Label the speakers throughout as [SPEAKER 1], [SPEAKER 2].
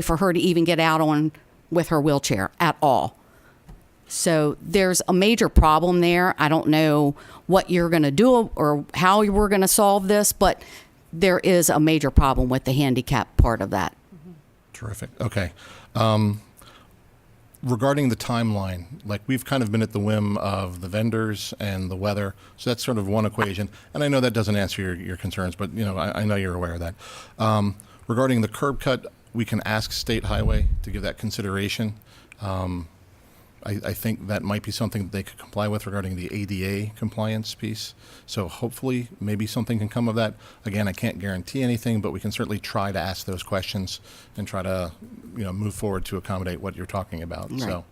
[SPEAKER 1] for her to even get out on with her wheelchair at all. So there's a major problem there. I don't know what you're going to do or how you we're going to solve this, but there is a major problem with the handicap part of that.
[SPEAKER 2] Terrific. Okay. Um, regarding the timeline, like we've kind of been at the whim of the vendors and the weather, so that's sort of one equation. And I know that doesn't answer your, your concerns, but you know I, I know you're aware of that. Um, regarding the curb cut, we can ask State Highway to give that consideration. Um, I, I think that might be something that they could comply with regarding the ADA compliance piece. So hopefully, maybe something can come of that. Again, I can't guarantee anything, but we can certainly try to ask those questions and try to, you know, move forward to accommodate what you're talking about. So,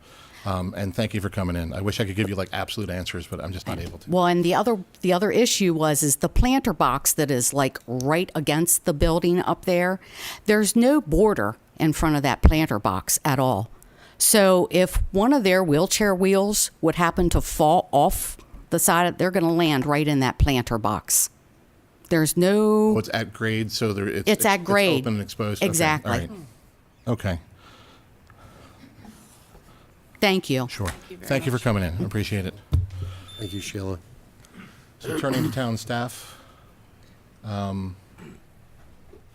[SPEAKER 2] um, and thank you for coming in. I wish I could give you like absolute answers, but I'm just not able to.
[SPEAKER 1] Well, and the other the other issue was is the planter box that is like right against the building up there. There's no border in front of that planter box at all. So if one of their wheelchair wheels would happen to fall off the side, of, they're going to land right in that planter box. There's no
[SPEAKER 2] Well, it's at grade, so there it's,
[SPEAKER 1] It's at grade.
[SPEAKER 2] open and exposed. Okay, all
[SPEAKER 1] Exactly.
[SPEAKER 2] right. Okay.
[SPEAKER 1] thank you.
[SPEAKER 2] Sure. Thank you for coming in. I Appreciate it.
[SPEAKER 3] Thank you, Sheila.
[SPEAKER 2] So turning to town staff.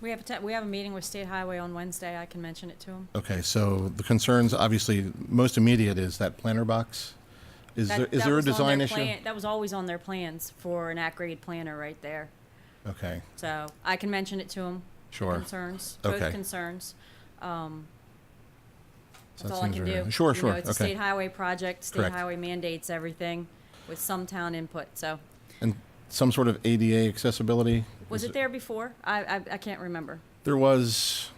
[SPEAKER 4] We have a, te- we have a meeting with State Highway on Wednesday. I can mention it to them.
[SPEAKER 2] Okay, so the concerns, obviously, most immediate is that planter box. Is there, is there a design issue?
[SPEAKER 4] That was always on their plans for an at-grade planner right there.
[SPEAKER 2] Okay,
[SPEAKER 4] So I can mention it to them.
[SPEAKER 2] Sure.
[SPEAKER 4] Concerns,
[SPEAKER 2] Okay.
[SPEAKER 4] both concerns.
[SPEAKER 2] so
[SPEAKER 4] That's
[SPEAKER 2] that
[SPEAKER 4] all I
[SPEAKER 2] seems
[SPEAKER 4] can
[SPEAKER 2] very-
[SPEAKER 4] do.
[SPEAKER 2] Sure,
[SPEAKER 4] You know,
[SPEAKER 2] sure,
[SPEAKER 4] It's a state
[SPEAKER 2] okay.
[SPEAKER 4] highway project. State
[SPEAKER 2] Correct.
[SPEAKER 4] highway mandates everything with some town input, so.
[SPEAKER 2] And some sort of ADA accessibility?
[SPEAKER 4] Was
[SPEAKER 2] Is
[SPEAKER 4] it there before? I, I, I can't remember.
[SPEAKER 2] There was,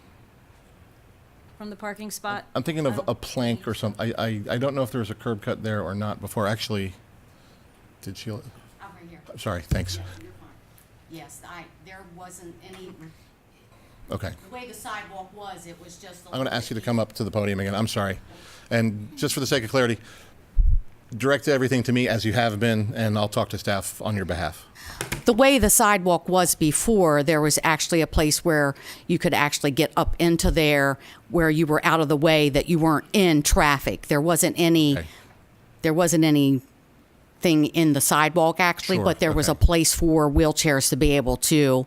[SPEAKER 4] From the
[SPEAKER 2] Uh,
[SPEAKER 4] parking spot?
[SPEAKER 2] I'm thinking of a plank or something. I, I, I don't know if there was a curb cut there or not before, actually, did Sheila? Sorry, thanks.
[SPEAKER 1] Yes, I, there wasn't any,
[SPEAKER 2] Okay.
[SPEAKER 1] the way the sidewalk was, it was just.
[SPEAKER 2] I'm going to ask you to come up to the podium again. I'm sorry. And just for the sake of clarity, direct everything to me as you have been, and I'll talk to staff on your behalf.
[SPEAKER 1] the way the sidewalk was before, there was actually a place where you could actually get up into there where you were out of the way that you weren't in traffic. There wasn't any
[SPEAKER 2] Okay.
[SPEAKER 1] there wasn't anything in the sidewalk actually,
[SPEAKER 2] Sure,
[SPEAKER 1] but there was a
[SPEAKER 2] okay.
[SPEAKER 1] place for wheelchairs to be able to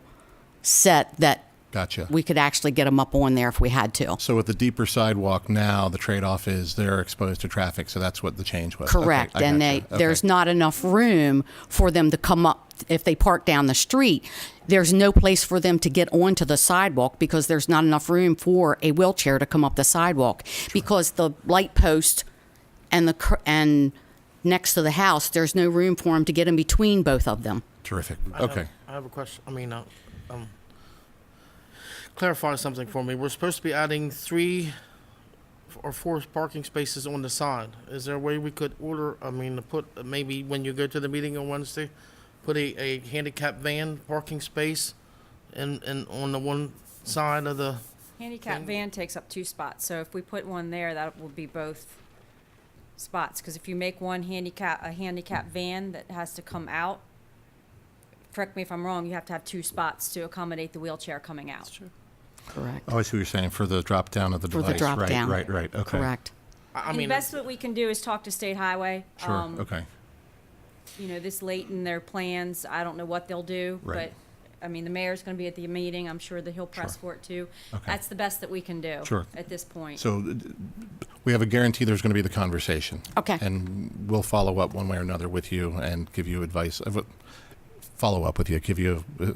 [SPEAKER 1] set that
[SPEAKER 2] Gotcha.
[SPEAKER 1] we could actually get them up on there if we had to.
[SPEAKER 2] So with the deeper sidewalk now, the trade-off is they're exposed to traffic, so that's what the change was. Okay,
[SPEAKER 1] Correct.
[SPEAKER 2] I
[SPEAKER 1] and they
[SPEAKER 2] gotcha. Okay.
[SPEAKER 1] there's not enough room for them to come up if they park down the street. There's no place for them to get onto the sidewalk because there's not enough room for a wheelchair to come up the sidewalk because the light post and the cur- and next to the house there's no room for them to get in between both of them.
[SPEAKER 2] Terrific.
[SPEAKER 5] I have-
[SPEAKER 2] Okay.
[SPEAKER 5] I have a question, I mean, uh, um, clarify something for me. We're supposed to be adding three f- or four parking spaces on the side. Is there a way we could order, I mean, to put, uh, maybe when you go to the meeting on Wednesday, put a, a handicap van parking space in, in, on the one side of the,
[SPEAKER 4] Handicap van takes up two spots, so if we put one there, that will be both spots, because if you make one handicap, a handicap van that has to come out, correct me if I'm wrong, you have to have two spots to accommodate the wheelchair coming out.
[SPEAKER 1] Correct.
[SPEAKER 2] Oh, I see what you're saying, for the drop-down of the
[SPEAKER 1] For
[SPEAKER 2] device.
[SPEAKER 1] the drop
[SPEAKER 2] right,
[SPEAKER 1] down.
[SPEAKER 2] Right, right, okay.
[SPEAKER 1] Correct.
[SPEAKER 5] I, I
[SPEAKER 4] And the
[SPEAKER 5] mean,
[SPEAKER 4] best that we can do is talk to State Highway.
[SPEAKER 2] Sure,
[SPEAKER 4] Um,
[SPEAKER 2] okay.
[SPEAKER 4] You know, this late in their plans, I don't know what they'll do, but,
[SPEAKER 2] Right.
[SPEAKER 4] I mean, the mayor's gonna be at the meeting, I'm sure that he'll press for it too.
[SPEAKER 2] Okay.
[SPEAKER 4] That's the best that we can do.
[SPEAKER 2] Sure.
[SPEAKER 4] At this point.
[SPEAKER 2] So uh, we have a guarantee there's going to be the conversation.
[SPEAKER 1] Okay.
[SPEAKER 2] And we'll follow up one way or another with you and give you advice, of what- follow up with you, give you uh,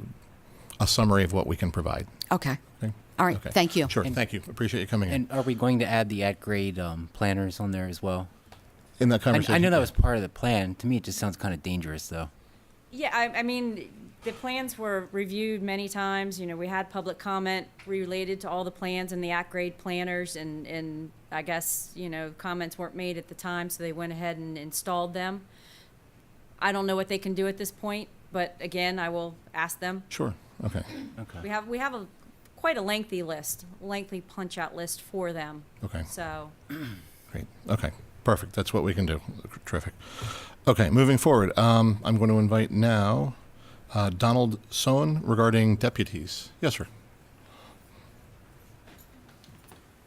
[SPEAKER 2] a summary of what we can provide.
[SPEAKER 1] Okay.
[SPEAKER 2] Okay?
[SPEAKER 1] All right.
[SPEAKER 2] Okay.
[SPEAKER 1] Thank you.
[SPEAKER 2] Sure, thank you. Appreciate you coming in,
[SPEAKER 6] And are we going to add the at-grade um, planners on there as well?
[SPEAKER 2] in that
[SPEAKER 6] I,
[SPEAKER 2] conversation.
[SPEAKER 6] I know that was part of the plan. To me, it just sounds kind of dangerous, though.
[SPEAKER 4] Yeah, I, I mean, the plans were reviewed many times, you know, we had public comment related to all the plans and the at-grade planners, and, and I guess, you know, comments weren't made at the time, so they went ahead and installed them. I don't know what they can do at this point, but again, I will ask them.
[SPEAKER 2] Sure, okay,
[SPEAKER 4] We have, we have a, quite a lengthy list, lengthy punch-out list for them,
[SPEAKER 2] okay.
[SPEAKER 4] so.
[SPEAKER 2] Great. Okay. Perfect. That's what we can do. Terrific. Okay. Moving forward, um, I'm going to invite now uh, Donald Sohn regarding deputies. Yes, sir.